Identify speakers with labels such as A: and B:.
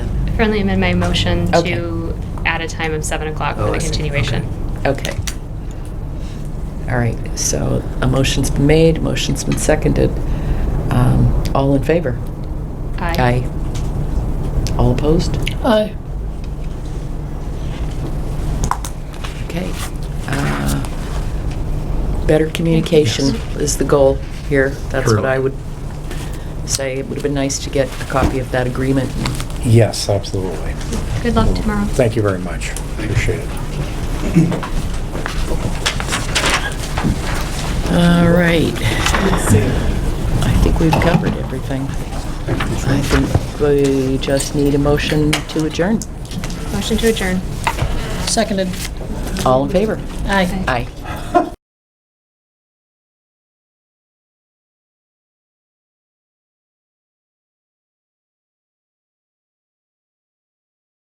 A: friendly amend my motion
B: Okay.
A: to add a time of 7 o'clock for
C: Oh,
A: the
C: I see.
A: continuation.
B: Okay. All right, so a motion's been made, a motion's been seconded. Um, All in favor? Aye. All opposed?
D: Aye.
B: Okay. Uh, Better communication is the goal here. That's what
C: True.
B: I would say. It would have been nice to get a copy of that agreement.
E: Yes, absolutely.
A: Good luck tomorrow.
E: Thank you very much. Appreciate it.
B: All right. I think we've covered everything. I think we just need a motion to adjourn.
A: Motion to adjourn.
D: Seconded.
B: All in favor?
D: Aye.
A: Aye.
B: Aye.